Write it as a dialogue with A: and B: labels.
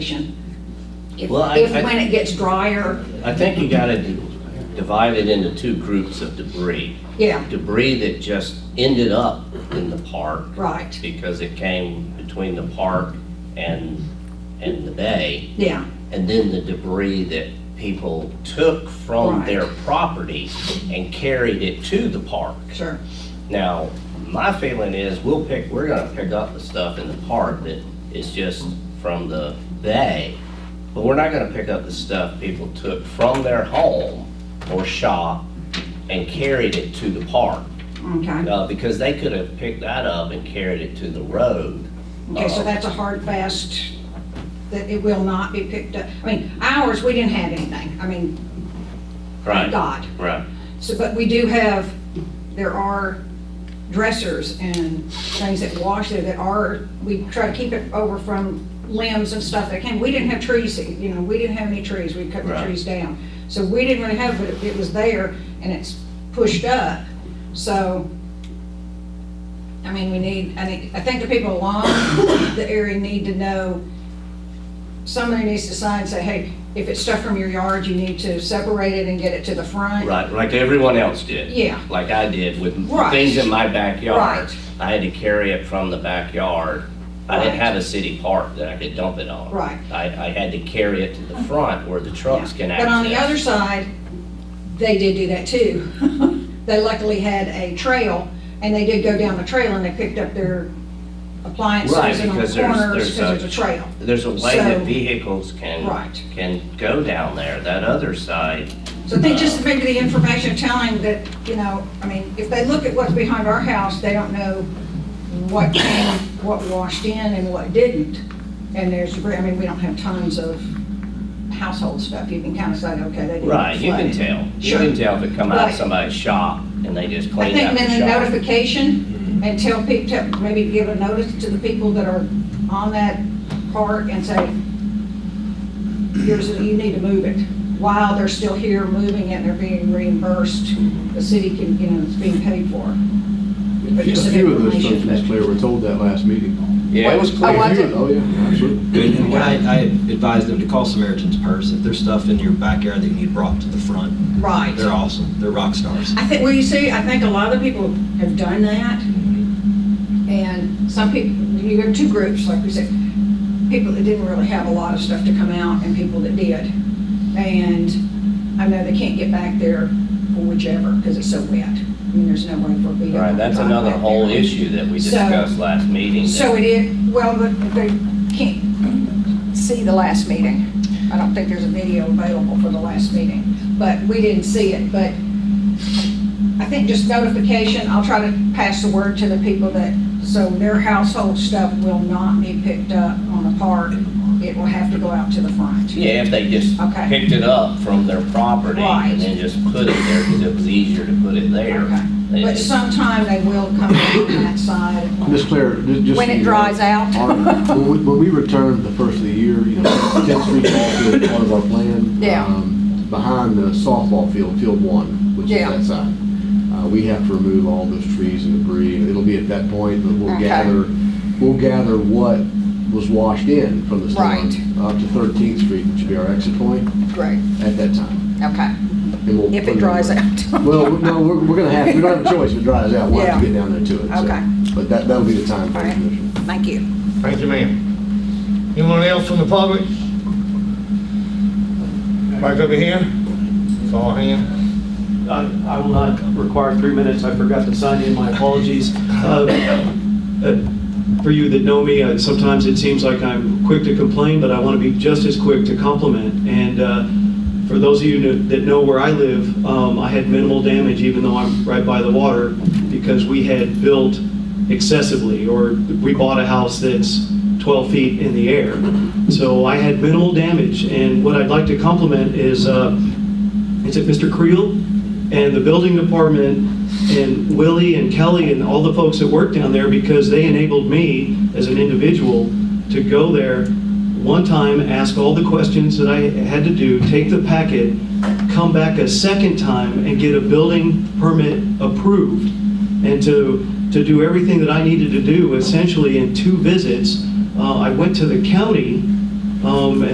A: vegetation. If,
B: Well, I-
A: if
B: I-
A: when it gets drier,
B: I think you gotta d- divide it into two groups of debris.
A: yeah,
B: Debris that just ended up in the park
A: right,
B: because it came between the park and, and the bay.
A: yeah,
B: And then the debris that people took from
A: Right.
B: their property and carried it to the park.
A: sure,
B: Now, my feeling is we'll pick, we're gonna pick up the stuff in the park that is just from the bay, but we're not gonna pick up the stuff people took from their home or shop and carried it to the park.
A: okay.
B: Uh, because they could have picked that up and carried it to the road.
A: Okay,
B: uh,
A: so that's a hard fast, that it will not be picked up. I mean, ours, we didn't have anything, I mean, thank
B: Right,
A: God.
B: right.
A: So, but we do have, there are dressers and things that wash there that are, we try to keep it over from limbs and stuff that came. We didn't have trees, you know, we didn't have any trees, we cut the
B: Right.
A: trees down. So we didn't really have, but it- it was there and it's pushed up. So, I mean, we need, I think, I think the people along the area need to know somebody needs to sign, and say, hey, if it's stuff from your yard, you need to separate it and get it to the front.
B: Right, like everyone else did.
A: Yeah.
B: Like I did with
A: Right.
B: things in my backyard.
A: Right.
B: I had to carry it from the backyard. I didn't
A: Right.
B: have a city park that I could dump it on.
A: Right.
B: I, I had to carry it to the front where the trucks can access.
A: But on the other side, they did do that too. They luckily had a trail, and they did go down the trail, and they picked up their appliances
B: Right,
A: and on the
B: because there's-
A: corners,
B: there's a-
A: because it's a trail.
B: There's a way that
A: So-
B: vehicles can.
A: Right.
B: Can go down there, that other side.
A: So I
B: Uh,
A: think just maybe the information telling that, you know, I mean, if they look at what's behind our house, they don't know what came, what washed in and what didn't. And there's, debris. I mean, we don't have tons of household stuff. You can kind of say, okay, they didn't.
B: Right, you
A: flood
B: can
A: it.
B: tell. You
A: Sure.
B: can tell if it come out
A: Right.
B: of somebody's shop and they just
A: I
B: clean
A: think
B: out the
A: then the
B: shop.
A: notification and tell people, maybe give a notice to the people that are on that park and say, here's, you need to move it. While they're still here moving it, they're being reimbursed, the city can, you know, it's being paid for.
C: A
A: But just some
C: few of those folks,
A: information,
C: Ms. Claire, were told that last meeting.
B: Yeah.
C: It was clear.
A: Oh, was
C: Few
A: it?
C: of- Oh, yeah, absolutely.
D: And I, I advise them to call Samaritan's Purse. If there's stuff in your backyard that you need brought to the front,
A: Right.
D: they're awesome. They're rock stars.
A: I think, well, you see, I think a lot of people have done that. And some people, you have two groups, like we said, people that didn't really have a lot of stuff to come out and people that did. And I know they can't get back there for whichever, because it's so wet. I mean, there's no way for people.
B: Right, that's
A: to drive
B: another
A: back
B: whole
A: there.
B: issue that we
A: So-
B: discussed last meeting. that-
A: So it is, well, but they can't see the last meeting. I don't think there's a video available for the last meeting, but we didn't see it, but I think just notification, I'll try to pass the word to the people that, so their household stuff will not be picked up on the park. It will have to go out to the front.
B: Yeah, if they just
A: Okay.
B: picked it up from their property
A: Right.
B: and then just put it there because it was easier to put it there. They
A: Okay. But
B: just-
A: sometime they will come on that side.
C: Ms. Claire, ju- just.
A: When it
C: so you
A: dries
C: know,
A: out.
C: our- When we- when we returned the first of the year, you know, 10th Street Ball Field, part of our plan.
A: Yeah.
C: um, Behind the softball field, Field One, which is
A: Yeah.
C: that side. Uh, We have to remove all those trees and debris. It'll be at that point, but we'll
A: Okay.
C: gather, we'll gather what was washed in from the
A: Right.
C: storm up to 13th Street, which would be our exit point
A: Great,
C: at that time.
A: okay,
C: And we'll
A: if
C: put
A: it dries out.
C: Well, we- no, we're, we're gonna have, we don't have a choice, if it dries out, we'll have to
A: Yeah.
C: get down there to it. so.
A: Okay.
C: But that, that'll be the time for
A: All
C: the
A: right.
C: commission.
A: Thank you.
E: Thank you, ma'am. Anyone else from the public? Back over here. It's all hand.
F: I I will not require three minutes, I forgot to sign in, my apologies. Uh, uh, For you that know me, I- sometimes it seems like I'm quick to complain, but I want to be just as quick to compliment. And uh, for those of you that- that know where I live, um, I had minimal damage, even though I'm right by the water, because we had built excessively, or we bought a house that's 12 feet in the air. So I had minimal damage, and what I'd like to compliment is uh, it's at Mr. Creel and the building department and Willie and Kelly and all the folks that work down there because they enabled me as an individual to go there one time, ask all the questions that I had to do, take the packet, come back a second time and get a building permit approved and to, to do everything that I needed to do essentially in two visits. Uh, I went to the county Um,